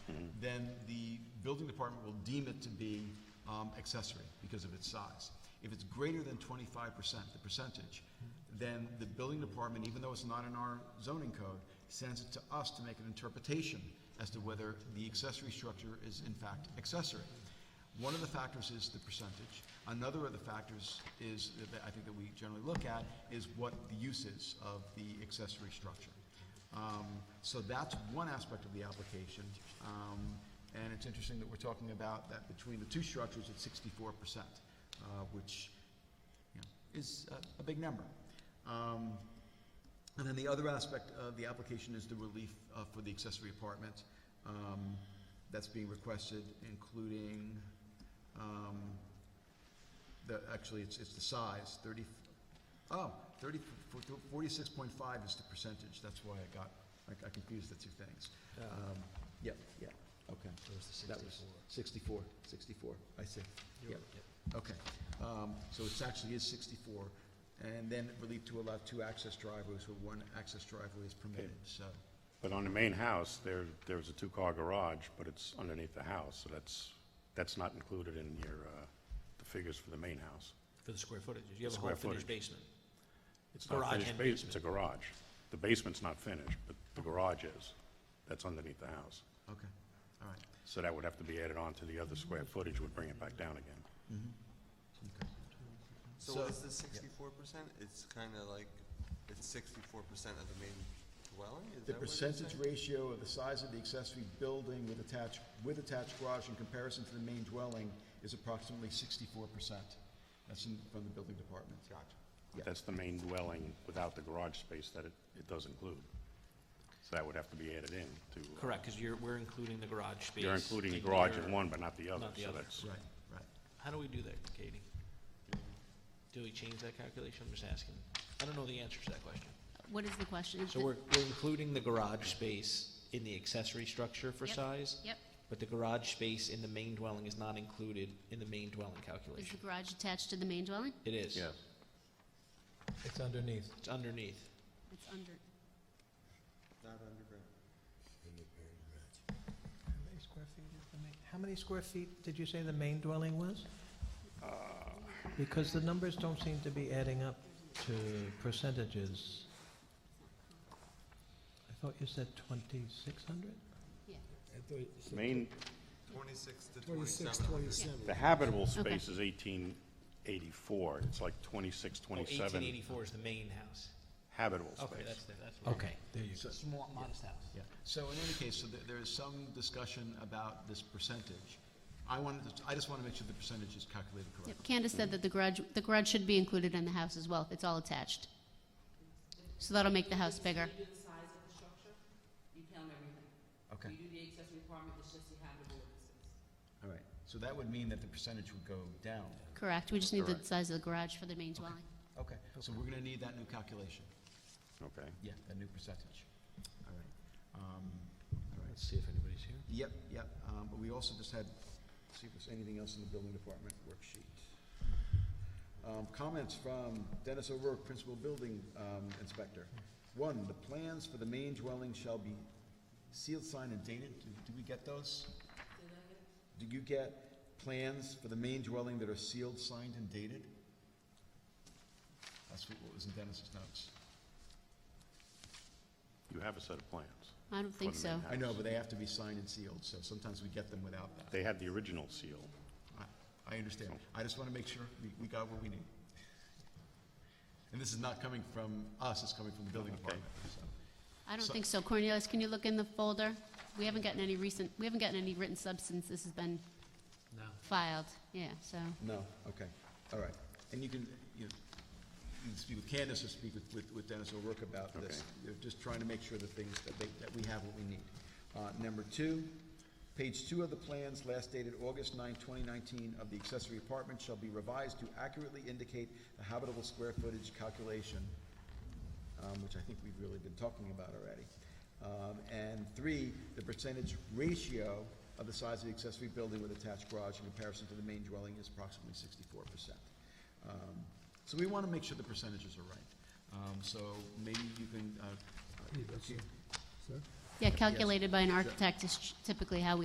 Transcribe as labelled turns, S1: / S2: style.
S1: then the building department will deem it to be um, accessory because of its size. If it's greater than twenty-five percent, the percentage, then the building department, even though it's not in our zoning code, sends it to us to make an interpretation as to whether the accessory structure is in fact accessory. One of the factors is the percentage. Another of the factors is, that I think that we generally look at, is what the use is of the accessory structure. Um, So that's one aspect of the application. Um, And it's interesting that we're talking about that between the two structures, it's sixty-four percent, uh, which, you know, is uh, a- a big number. Um, and then the other aspect of the application is the relief uh, for the accessory apartment um, that's being requested, including, um, the, actually, it's, it's the size, thirty, oh, thirty, forty-six point five is the percentage, that's why I got, I- I confused the two things. Um, Yep, yeah, okay. That was Sixty-four, sixty-four, I see, yep. Okay, um, so it actually is sixty-four, and then relief to allow two access driveways where one access driveway is permitted, so.
S2: But on the main house, there, there's a two-car garage, but it's underneath the house, so that's, that's not included in your, uh, the figures for the main house.
S3: For the square footage, you have a
S2: Square
S3: whole finished
S2: footage.
S3: basement. It's
S2: Not
S3: garage
S2: finished
S3: and
S2: bas-
S3: basement.
S2: It's a garage. The basement's not finished, but the garage is. That's underneath the house.
S1: Okay, all right,
S2: So that would have to be added on to the other square footage, would bring it back down again.
S1: okay.
S4: So
S1: So-
S4: what is the sixty-four percent? It's kinda like, it's sixty-four percent of the main dwelling, is
S1: The
S4: that what you're
S1: percentage
S4: saying?
S1: ratio of the size of the accessory building with attached, with attached garage in comparison to the main dwelling is approximately sixty-four percent. That's in, from the building department. Gotcha. Yeah.
S2: That's the main dwelling without the garage space that it, it does include. So that would have to be added in to. uh,
S3: Correct, because you're, we're including the garage space.
S2: You're including the
S3: in
S2: garage
S3: your-
S2: in one, but not the other,
S3: Not the
S2: so
S3: other.
S2: that's.
S1: Right, right.
S3: How do we do that, Katie? Do we change that calculation? I'm just asking. I don't know the answer to that question.
S5: What is the question?
S3: So we're, we're including the garage space in the accessory structure for
S5: Yep,
S3: size?
S5: Yep.
S3: But the garage space in the main dwelling is not included in the main dwelling
S5: Is the
S3: calculation?
S5: garage attached to the main dwelling?
S3: It is.
S2: Yes.
S6: It's underneath.
S3: It's underneath.
S5: It's under,
S4: Not underground.
S6: How many square feet is the main, how many square feet did you say the main dwelling was? Because the numbers don't seem to be adding up to percentages. I thought you said twenty-six hundred?
S5: yeah.
S2: Main,
S4: Twenty-six to
S7: Twenty-six,
S4: twenty-seven hundred.
S7: twenty-seven.
S2: the habitable
S5: Okay.
S2: space is eighteen eighty-four, it's like twenty-six,
S3: Oh, Eighteen
S2: twenty-seven
S3: eighty-four is the main house.
S2: habitable
S3: Okay,
S2: space.
S3: that's, the- that's. what-
S6: Okay, there you go.
S3: Small, modest house.
S1: Yeah, so in any case, so there, there is some discussion about this percentage. I wanted to, I just want to make sure the percentage is calculated
S5: Yep,
S1: correctly.
S5: Candace said that the garage, the garage should be included in the house as well, it's all attached. So that'll make the house bigger.
S8: You do the size of the structure, you count everything.
S1: Okay,
S8: You do the accessory apartment, it's just the habitable space.
S1: all right. So that would mean that the percentage would go down.
S5: Correct, we just need the size of the garage for the main dwelling.
S1: Okay, so we're gonna need that new calculation.
S2: Okay.
S1: Yeah, that new percentage. All right. Um, all right.
S3: Let's see if anybody's here.
S1: Yep, yep, um, but we also just had, see if there's anything else in the building department worksheet. Um, comments from Dennis O'Rourke, Principal Building, um, Inspector. One, the plans for the main dwelling shall be sealed, signed, and dated. Do, do we get those? Do you get plans for the main dwelling that are sealed, signed, and dated? That's what what was in Dennis's notes.
S2: You have a set of plans.
S5: I don't think
S2: For the main
S5: so.
S2: house.
S1: I know, but they have to be signed and sealed, so sometimes we get them without that.
S2: They had the original seal.
S1: I- I understand. I just want to make sure we, we got what we need. And this is not coming from us, it's coming from the building department, so.
S5: I don't
S1: So-
S5: think so. Cornelius, can you look in the folder? We haven't gotten any recent, we haven't gotten any written substance, this has been
S3: No.
S5: filed, yeah, so.
S1: No, okay, all right. And you can, you know, you can speak with Candace or speak with- with, with Dennis O'Rourke about this. You're just trying to make sure that things, that they, that we have what we need. Uh, number two, page two of the plans, last dated August 9, 2019, of the accessory apartment shall be revised to accurately indicate the habitable square footage calculation um, which I think we've really been talking about already. Um, and three, the percentage ratio of the size of the accessory building with attached garage in comparison to the main dwelling is approximately sixty-four percent. Um, so we wanna make sure the percentages are right. Um, so maybe you can, uh, uh,
S7: Sir?
S5: Yeah, calculated by an architect is typically how we